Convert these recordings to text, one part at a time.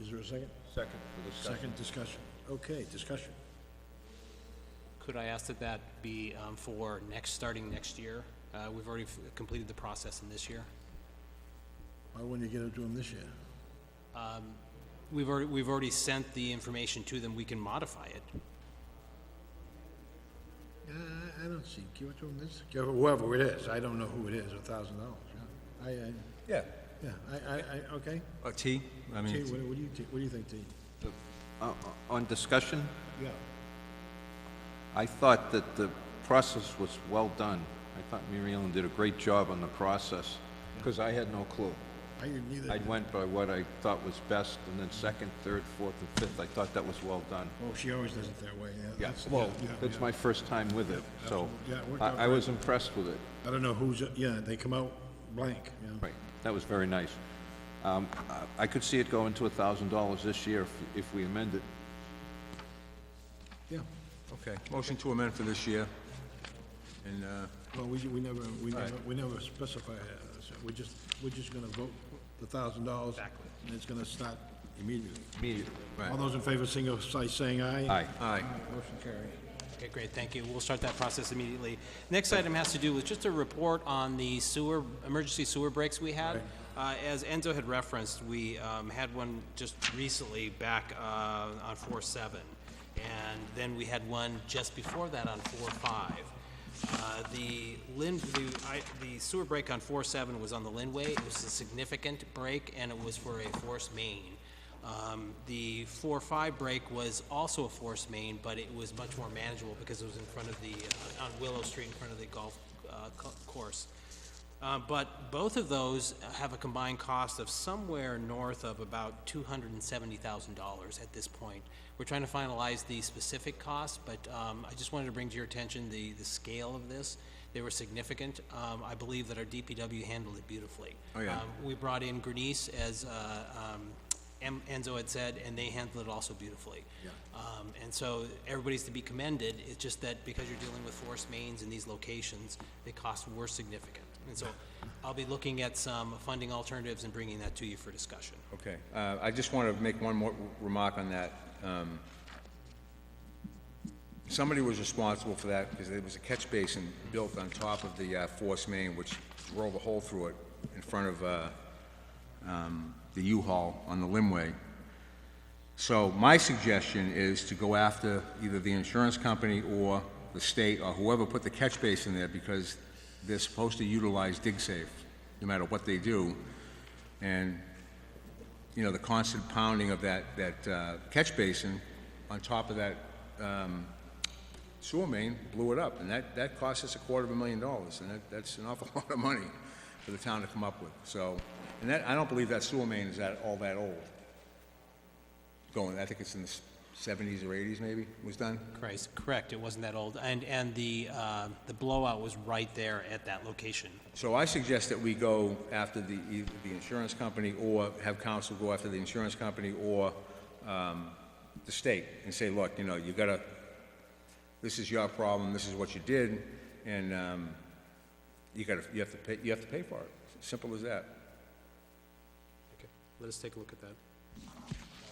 Is there a second? Second for discussion. Second discussion. Okay, discussion. Could I ask that that be um, for next, starting next year? Uh, We've already f- completed the process in this year. Why wouldn't you get it to them this year? We've already, we've already sent the information to them, we can modify it. Uh, I don't see, give it to them this, give it whoever it is, I don't know who it is, a thousand dollars, yeah. I, I, Yeah. yeah, I, I, I, okay. Uh, T, I T, mean, what what do you, thi- what do you think, T? Uh, On discussion, Yeah. I thought that the process was well done. I thought Mary Ellen did a great job on the process, because I had no clue. I didn't either. I went by what I thought was best, and then second, third, fourth, and fifth, I thought that was well done. Well, she always does it that way, yeah. Yeah, that's- well, yeah, that's yeah. my first time with it, so Yeah, it worked out I I great. was impressed with it. I don't know who's, yeah, they come out blank, you know. Right, that was very nice. Um, I- I could see it going to $1,000 this year if- if we amend it. Yeah, okay, motion to amend for this year. And, uh, well, we, we never, we never, we never specify, uh, so we're just, we're just gonna vote the thousand dollars. Exactly. And it's gonna start immediately. Immediately. All those in favor, single by saying aye. Aye. aye, Motion carried. Okay, great, thank you. We'll start that process immediately. Next item has to do with just a report on the sewer, emergency sewer breaks we had. Uh, As Enzo had referenced, we um, had one just recently back uh, on 4-7, and then we had one just before that on 4-5. Uh, The Lin, the, I, the sewer break on four seven was on the Linway. It was a significant break, and it was for a force main. Um, the four five break was also a force main, but it was much more manageable because it was in front of the, uh, on Willow Street in front of the golf, uh, co- course. Uh, but both of those have a combined cost of somewhere north of about two hundred and seventy thousand dollars at this point. We're trying to finalize the specific costs, but, um, I just wanted to bring to your attention the, the scale of this. They were significant. Um, I believe that our DPW handled it beautifully. Oh, yeah. Um, We brought in Grenice, as, uh, um, Em- Enzo had said, and they handled it also beautifully. Um, and so everybody's to be commended. It's just that because you're dealing with forest mains in these locations, the costs were significant. And so I'll be looking at some funding alternatives and bringing that to you for discussion. okay. Uh, I just want to make one more remark on that. Um, Somebody was responsible for that, because there was a catch basin built on top of the uh, force main, which drove a hole through it in front of uh, um, the U-Haul on the Limway. So my suggestion is to go after either the insurance company or the state or whoever put the catch basin there because they're supposed to utilize DigSafe, no matter what they do. And, you know, the constant pounding of that, that uh, catch basin on top of that um, sewer main blew it up. And that, that cost us a quarter of a million dollars, and that, that's an awful lot of money for the town to come up with. So, and that, I don't believe that sewer main is that, all that old going, I think it's in the seventies or eighties maybe, was done? Christ, correct, it wasn't that old. And, and the, uh, the blowout was right there at that location. So I suggest that we go after the, either the insurance company, or have counsel go after the insurance company or, um, the state, and say, look, you know, you gotta, this is your problem, this is what you did, and, um, you gotta, you have to pay, you have to pay for it, simple as that. Okay, let us take a look at that.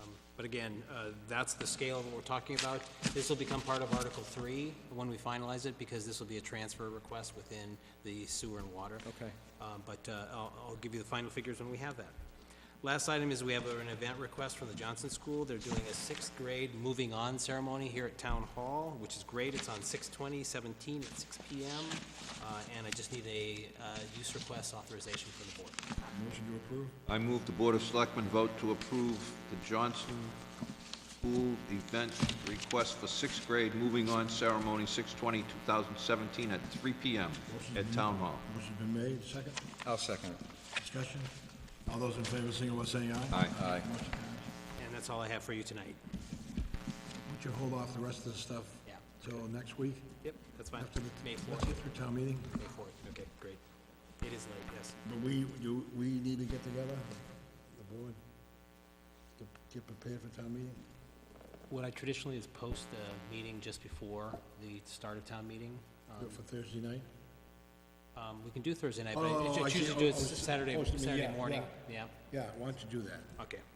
Um, But again, uh, that's the scale of what we're talking about. This will become part of Article Three when we finalize it, because this will be a transfer request within the sewer and water. Okay. Um, But uh, I'll, I'll give you the final figures when we have that. Last item is we have an event request from the Johnson School. They're doing a sixth grade moving on ceremony here at Town Hall, which is great. It's on 6/20/17 at six P M. Uh, And I just need a uh, use request authorization from the board. Motion to approve? I move the Board of Selectmen vote to approve the Johnson School event request for sixth grade moving on ceremony 6/20/2017 at 3 PM at Town Hall. Motion's been made, second, I'll second it. discussion. All those in favor, single by saying aye. Aye. Aye. And that's all I have for you tonight. Would you hold off the rest of the stuff? Yeah. Till next week? Yep, that's fine. After the- May Let's fourth, get through town meeting, May fourth, okay, great. It is late, yes. but we, you, we need to get together, the board, to get prepared for town meeting. What I traditionally is post the meeting just before the start of town meeting. Do it for Thursday night? Um, we can do Thursday night, Oh, but I I choose see. to do Oh, it oh, it's just Saturday, post the meeting. Yeah, Saturday morning, yeah, Yeah, why don't you do that? okay.